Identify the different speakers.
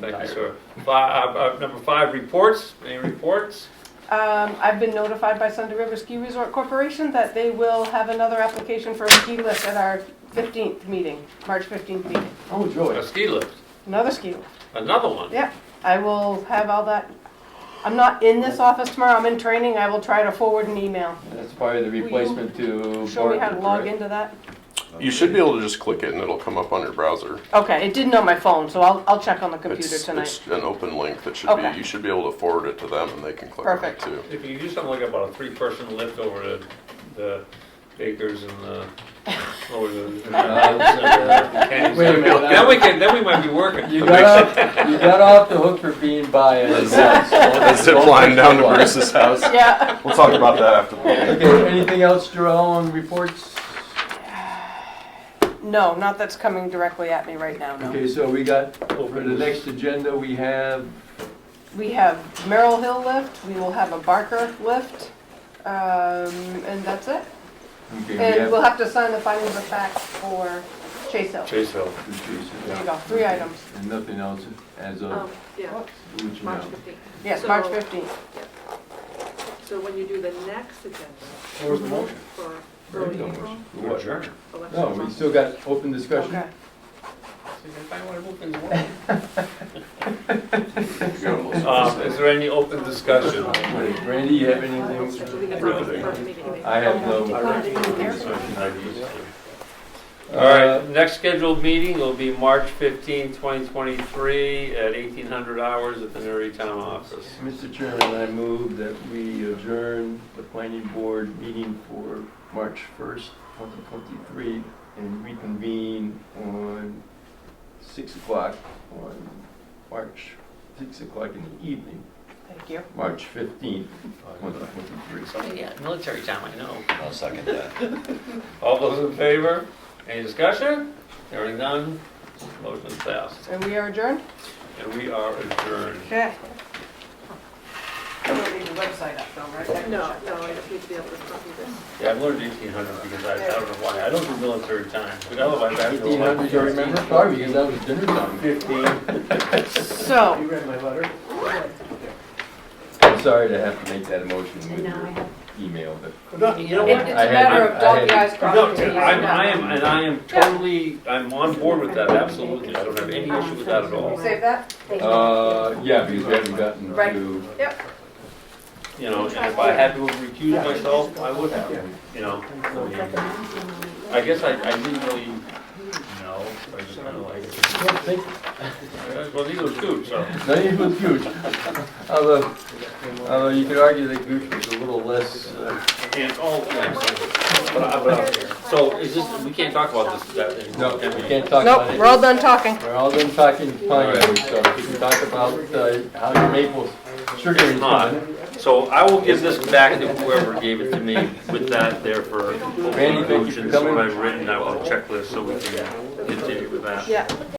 Speaker 1: Thank you, sir. Five, uh, uh, number five, reports. Any reports?
Speaker 2: Um, I've been notified by Thunder River Ski Resort Corporation that they will have another application for a ski lift at our fifteenth meeting, March fifteenth meeting.
Speaker 3: Oh, joy.
Speaker 1: A ski lift,
Speaker 2: Another ski lift.
Speaker 1: another one.
Speaker 2: Yeah, I will have all that. I'm not in this office tomorrow, I'm in training, I will try to forward an email.
Speaker 3: That's probably the replacement to.
Speaker 2: Show me how to
Speaker 3: Bartlett,
Speaker 2: log
Speaker 3: right?
Speaker 2: into that.
Speaker 4: You should be able to just click it and it'll come up on your browser.
Speaker 2: Okay, it didn't on my phone, so I'll, I'll check on the computer
Speaker 4: It's,
Speaker 2: tonight.
Speaker 4: it's an open link that should
Speaker 2: Okay.
Speaker 4: be, you should be able to forward it to them and they can click on it
Speaker 2: Perfect.
Speaker 4: too.
Speaker 1: If you do something like about a three-person lift over to the Bakers and the, over to the
Speaker 3: Uh,
Speaker 1: Kenny's.
Speaker 3: Wait a minute,
Speaker 1: Then we can, then we might be working.
Speaker 3: You got off, you got off the hook for being biased.
Speaker 4: A zip line down to Bruce's house.
Speaker 2: Yeah,
Speaker 4: We'll talk about that after the meeting.
Speaker 3: Okay, anything else, Jarrell, on reports?
Speaker 2: no, not that's coming directly at me right now, no.
Speaker 3: Okay, so we got, for the next agenda, we have,
Speaker 2: We have Merrill Hill lift, we will have a Barker lift, um, and that's it.
Speaker 3: okay, we
Speaker 2: And
Speaker 3: have.
Speaker 2: Uh, we'll have to sign the findings of fact for Chase Hill.
Speaker 1: Chase Hill.
Speaker 2: There you go, three items.
Speaker 3: And nothing else as
Speaker 5: Um,
Speaker 3: of,
Speaker 5: yeah,
Speaker 3: which
Speaker 5: March
Speaker 3: now.
Speaker 5: 15th.
Speaker 2: Yes, March
Speaker 5: So-
Speaker 2: 15th.
Speaker 5: So when you do the next agenda
Speaker 1: What was the motion?
Speaker 5: for early
Speaker 3: Very
Speaker 5: April,
Speaker 1: We're adjourned.
Speaker 5: election
Speaker 3: No, we
Speaker 5: month.
Speaker 3: still got open discussion.
Speaker 2: Okay.
Speaker 1: Um, is there any open discussion?
Speaker 3: Wait, Randy, you have
Speaker 5: Uh, So we
Speaker 3: anything?
Speaker 5: can go to the first meeting.
Speaker 3: I have no.
Speaker 1: All
Speaker 3: Uh,
Speaker 1: right, Uh, next scheduled meeting will be March 15, 2023, at 1800 hours at the Newry Town Office.
Speaker 3: Mr. Chairman, I move that we adjourn the planning board meeting for March 1st, 2023, and reconvene on 6 o'clock on March, 6 o'clock in the evening,
Speaker 2: Thank you.
Speaker 3: March 15th, 2023.
Speaker 1: Yeah, military time, I know.
Speaker 6: I'll second that.
Speaker 1: All those in favor? Any discussion? Hearing none, motion passed.
Speaker 2: And we are adjourned?
Speaker 1: And we are adjourned.
Speaker 2: Okay. I'm gonna leave the website up though, right?
Speaker 5: No, no, I just need to be able to copy this.
Speaker 1: Yeah, I've learned 1800 because I I don't know why. I don't do military time, but otherwise I have to.
Speaker 3: 1800, you remember? Sorry, because that was dinner time.
Speaker 1: 15.
Speaker 2: So,
Speaker 3: read my letter? I'm sorry to have to make that motion with your email, but
Speaker 1: You know
Speaker 2: it-
Speaker 1: what?
Speaker 2: it's a
Speaker 3: I had-
Speaker 2: matter of
Speaker 3: I
Speaker 2: doggy
Speaker 3: had-
Speaker 2: eyes
Speaker 1: No,
Speaker 2: crossing. the
Speaker 1: I'm, I
Speaker 2: I's.
Speaker 1: am, and I am totally, I'm on board with that, absolutely. I don't have any issue with that at all.
Speaker 2: Save that?
Speaker 3: Uh, yeah, because we haven't gotten
Speaker 2: Right.
Speaker 3: to.
Speaker 1: You know, and if I had to have recused myself, I would have, you know. I mean, I guess I, I didn't really know, I just kind of like, well, these are two, so.
Speaker 3: That is was huge. Although, although you could argue that Gooch was a little less, uh,
Speaker 1: And all, but I, but I, so is this, we can't talk about this, that, and.
Speaker 3: no, we can't talk about
Speaker 2: Nope,
Speaker 3: it.
Speaker 2: we're all done talking.
Speaker 3: We're all done talking pine Ridge, so we can talk about uh, how your maple sugar is
Speaker 1: Not.
Speaker 3: coming.
Speaker 1: So I will give this back to whoever gave it to me with that there for
Speaker 3: Randy, thank you for
Speaker 1: conclusions,
Speaker 3: coming.
Speaker 1: what I've written, I will checklist so we can continue with that.
Speaker 2: Yeah.